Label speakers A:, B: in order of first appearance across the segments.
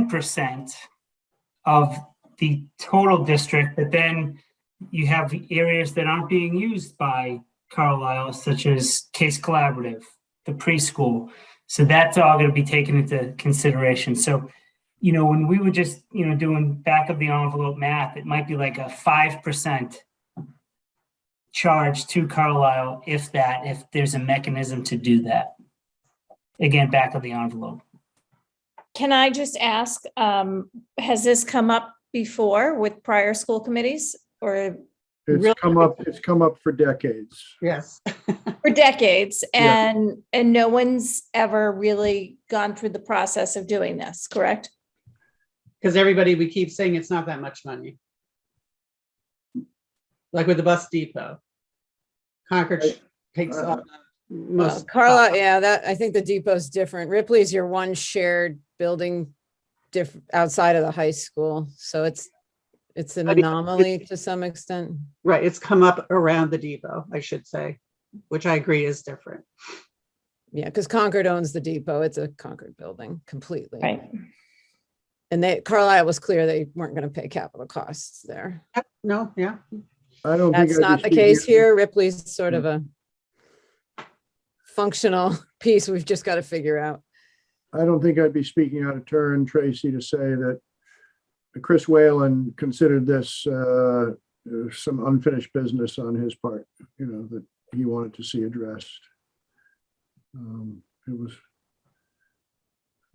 A: 10% of the total district, but then you have areas that aren't being used by Carlisle, such as Case Collaborative, the preschool. So that's all going to be taken into consideration. So, you know, when we were just, you know, doing back of the envelope math, it might be like a 5% charge to Carlisle if that, if there's a mechanism to do that. Again, back of the envelope.
B: Can I just ask, um, has this come up before with prior school committees or Really?
C: It's come up, it's come up for decades.
D: Yes.
B: for decades?
C: Yeah.
B: And, and no one's ever really gone through the process of doing this, correct?
D: Because everybody, we keep saying it's not that much money. Like with the bus depot. Concord takes
C: Uh,
D: all the
E: Well,
D: most. uh,
E: Carla, yeah, that, I think the depot's different. Ripley's your one shared building diff, outside of the high school, so it's, it's an
D: I mean,
E: anomaly to some extent.
D: Right, it's come up around the depot, I should say, which I agree is different.
E: Yeah, because Concord owns the depot. It's a Concord building completely. And they, Carlisle was clear they weren't going to pay capital costs there.
D: Yep, No, yeah,
C: I don't think.
E: That's
C: I'd be
E: not the
C: speaking-
E: case here. Ripley's sort of a functional piece we've just got to figure out.
C: I don't think I'd be speaking out of turn, Tracy, to say that Chris Whalen considered this uh, some unfinished business on his part, you know, that he wanted to see addressed. Um, It was.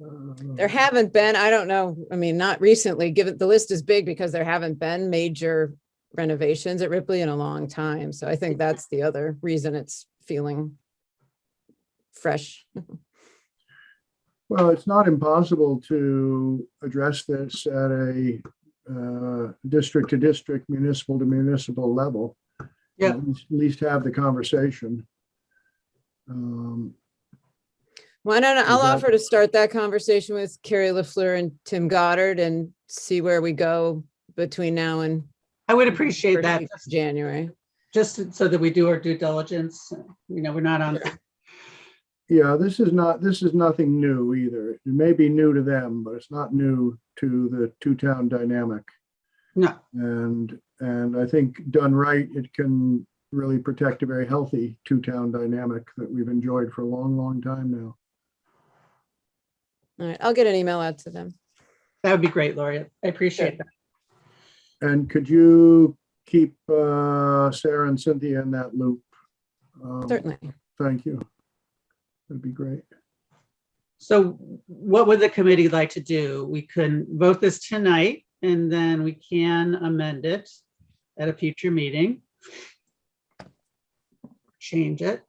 C: uh,
E: There haven't been, I don't know, I mean, not recently, given the list is big because there haven't been major renovations at Ripley in a long time. So I think that's the other reason it's feeling fresh.
C: Well, it's not impossible to address this at a uh, district to district, municipal to municipal level.
D: Yeah.
C: At least- at least have the conversation. Um,
E: Well, I don't know. I'll
C: Exactly.
E: offer to start that conversation with Carrie LaFleur and Tim Goddard and see where we go between now and
D: I would appreciate
E: first
D: that,
E: week of
D: just-
E: January.
D: just so that we do our due diligence, you know, we're not on,
C: Yeah, this is not, this is nothing new either. It may be new to them, but it's not new to the two-town dynamic.
D: no,
C: And, and I think done right, it can really protect a very healthy two-town dynamic that we've enjoyed for a long, long time now.
E: All right, I'll get an email out to them.
D: that would be great, Lori, I appreciate that.
C: And could you keep uh, Sarah and Cynthia in that loop? Um,
E: Certainly.
C: Thank you. That'd be great.
D: So what would the committee like to do? We can vote this tonight and then we can amend it at a future meeting. Change it.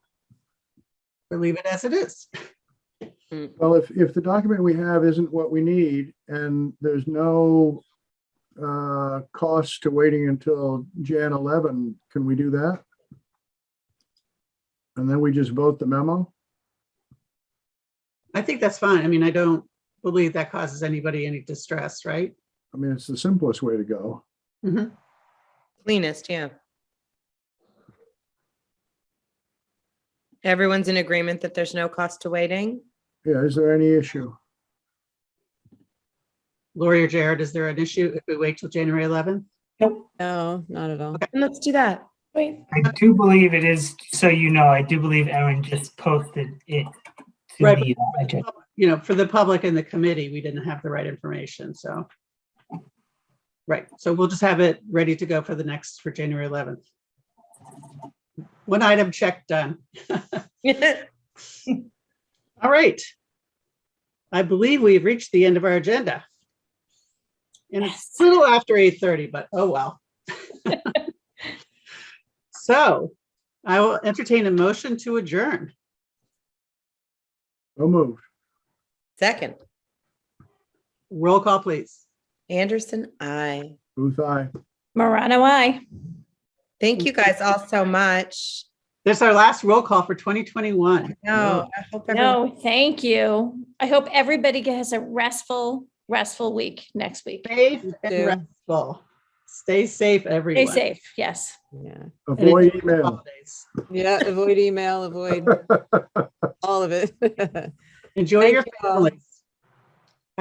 D: Or leave it as it is.
C: Well, if, if the document we have isn't what we need and there's no uh, cost to waiting until Jan 11, can we do that? And then we just vote the memo?
D: I think that's fine. I mean, I don't believe that causes anybody any distress, right?
C: I mean, it's the simplest way to go.
F: Cleanest, yeah. Everyone's in agreement that there's no cost to waiting?
C: Yeah, is there any issue?
D: Lori or Jared, is there an issue if we wait till January 11th?
A: Nope.
E: No, not at all.
F: And let's do that.
B: Wait,
A: I do believe it is, so you know, I do believe Erin just posted it. to
D: Right,
A: the, uh, agenda.
D: You know, for the public and the committee, we didn't have the right information, so. Right, so we'll just have it ready to go for the next, for January 11th. One item check done. All right. I believe we've reached the end of our agenda. And it's a little after 8:30, but oh well. So I will entertain a motion to adjourn.
C: No move.
F: Second,
D: Roll call, please.
F: Anderson, I.
C: Booth, aye.
B: Marana, why?
F: Thank you guys all so much.
D: This is our last roll call for 2021.
F: No, I hope everyone,
B: No, thank you. I hope everybody has a restful, restful week next week.
D: Safe and
E: too.
D: restful. Stay safe, everyone.
B: Stay safe, yes.
E: Yeah.
D: And
C: Avoid
D: enjoy the
C: email.
D: holidays.
E: Yeah, avoid email, avoid all of it.
D: Enjoy
E: Thank
D: your
E: you all.
D: families.